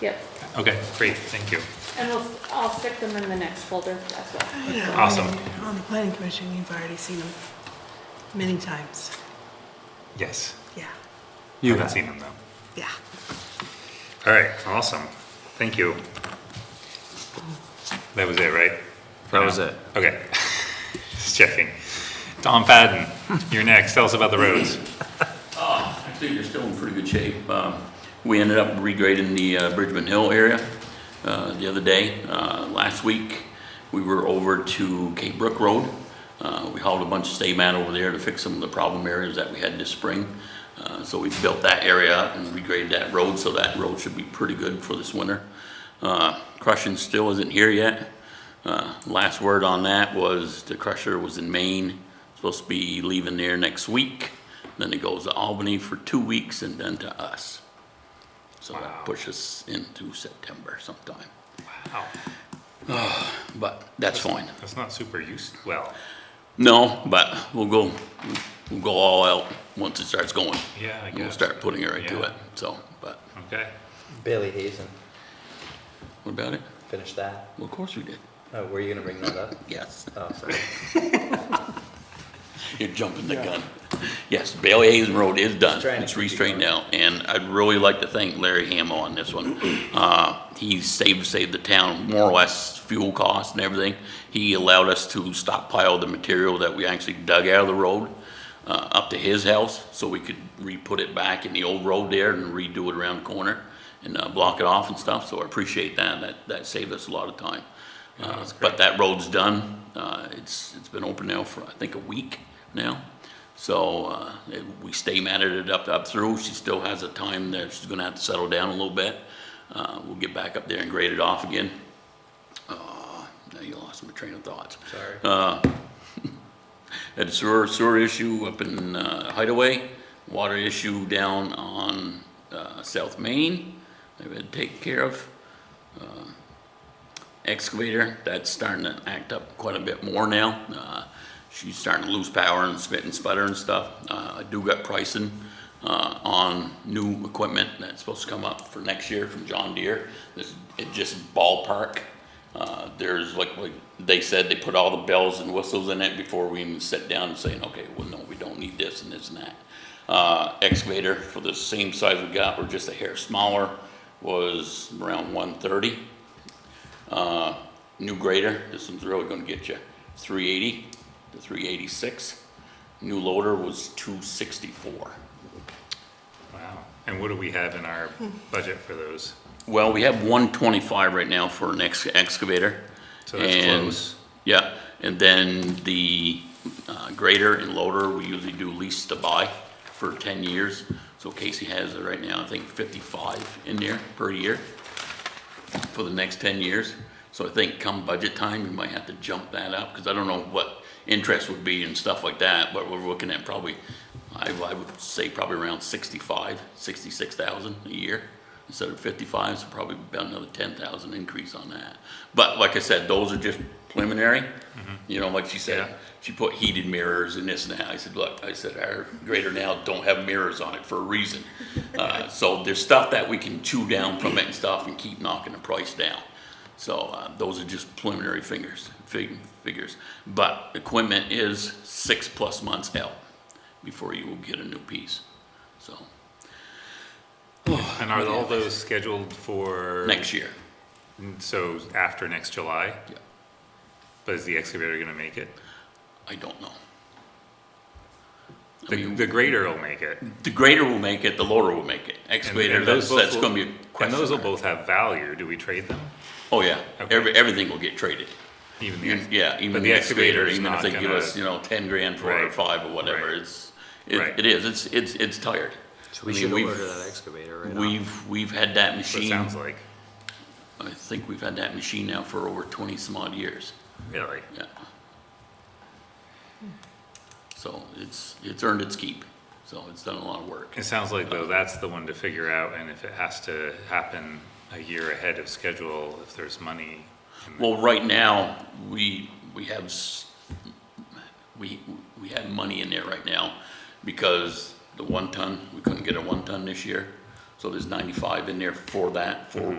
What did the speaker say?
Yep, Okay, great, thank you. and we'll, I'll stick them in the next folder as well. Yeah, I Awesome. mean, On the planning commission, you've already seen them many times. Yes. Yeah, You haven't seen them though. yeah. All right, awesome. Thank you. That was it, right? That was it. Okay. Just checking. Tom Fadden, you're next. Tell us about the roads. Actually, they're still in pretty good shape. Um, We ended up regrading the uh, Bridgman Hill area uh, the other day. Uh, Last week, we were over to Cape Brook Road. Uh, We hauled a bunch of stay mat over there to fix some of the problem areas that we had this spring. Uh, So we built that area up and regraded that road, so that road should be pretty good for this winter. Uh, Crushing still isn't here yet. Uh, Last word on that was the crusher was in Maine, supposed to be leaving there next week. Then it goes to Albany for two weeks and then to us. So that pushes into September sometime. Wow, But that's fine. that's not super used, well, No, but we'll go, we'll go all out once it starts going. Yeah, I We'll guess. start putting it right to Yeah. it, so, but okay. Bailey Hazen, what about it? finish that. Well, of course we did. Oh, were you gonna bring that up? Yes, Oh, sorry. you're jumping the gun. Yes, Bailey Hayes Road is done. Trying to It's keep you restraightened out, and I'd really like to thank Larry Hamill on this one. Uh, he saved, saved the town more or less fuel costs and everything. He allowed us to stockpile the material that we actually dug out of the road, uh, up to his house, so we could re-put it back in the old road there and redo it around the corner and, uh, block it off and stuff, so I appreciate that. That, that saved us a lot of time. Uh, But that road's done. Uh, It's, it's been open now for, I think, a week now. So uh, it- we stay matted it up, up through. She still has a time there. She's going to have to settle down a little bit. Uh, We'll get back up there and grade it off again. Uh, Now you lost my train of thoughts. Sorry. Had a sewer, sewer issue up in uh, Hideaway, water issue down on uh, South Main. They've had to take care of excavator, that's starting to act up quite a bit more now. Uh, She's starting to lose power and spit and sputter and stuff. Uh, I do got pricing uh, on new equipment that's supposed to come up for next year from John Deere. This, it just ballpark. Uh, There's like, like they said, they put all the bells and whistles in it before we even sit down and saying, okay, well, no, we don't need this and this and that. Uh, Excavator for the same size we got, or just a hair smaller, was around one thirty. Uh, New grader, this one's really gonna get you, three eighty to three eighty-six. New loader was two sixty-four. Wow. And what do we have in our budget for those? Well, we have one twenty-five right now for an ex- excavator. So that's and- close. Yeah, and then the uh, grader and loader, we usually do lease to buy for ten years. So Casey has it right now, I think fifty-five in there per year for the next ten years. So I think come budget time, we might have to jump that up, because I don't know what interest would be and stuff like that, but we're looking at probably, I, I would say probably around sixty-five, sixty-six thousand a year instead of fifty-five, so probably about another ten thousand increase on that. But like I said, those are just preliminary, you know, like she Yeah. said, she put heated mirrors and this and that. I said, look, I said, our grader now don't have mirrors on it for a reason. Uh, so there's stuff that we can chew down from it and stuff and keep knocking the price down. So, uh, those are just preliminary fingers, fig, figures. But equipment is six plus months out before you will get a new piece. So, And are all those scheduled for? next year, So after next July? Yeah. But is the excavator gonna make it? I don't know. I The, mean, the grader will make it. and- the grader will make it, the loader will make it. and Excavator, those that's, both that's will- gonna be a And those will question. both have value. Do we trade them? Oh, yeah. Okay. Every, everything will get traded. Even the. You- ex- Yeah, but even the the excavator, excavator's even not if they give gonna- us, you know, ten grand for it or Right, five or whatever, right, it's, it, right. it is, it's, it's, it's tired. We I mean, should we've- order that excavator right now. We've, we've had that So it machine, sounds like, I think we've had that machine now for over twenty some odd years, really. yeah. So it's, it's earned its keep, so it's done a lot of work. It sounds like though, that's the one to figure out, and if it has to happen a year ahead of schedule, if there's money. in the- Well, right now, we, we have, s- we, we have money in there right now because the one ton, we couldn't get a one ton this year. So there's ninety-five in there for that, for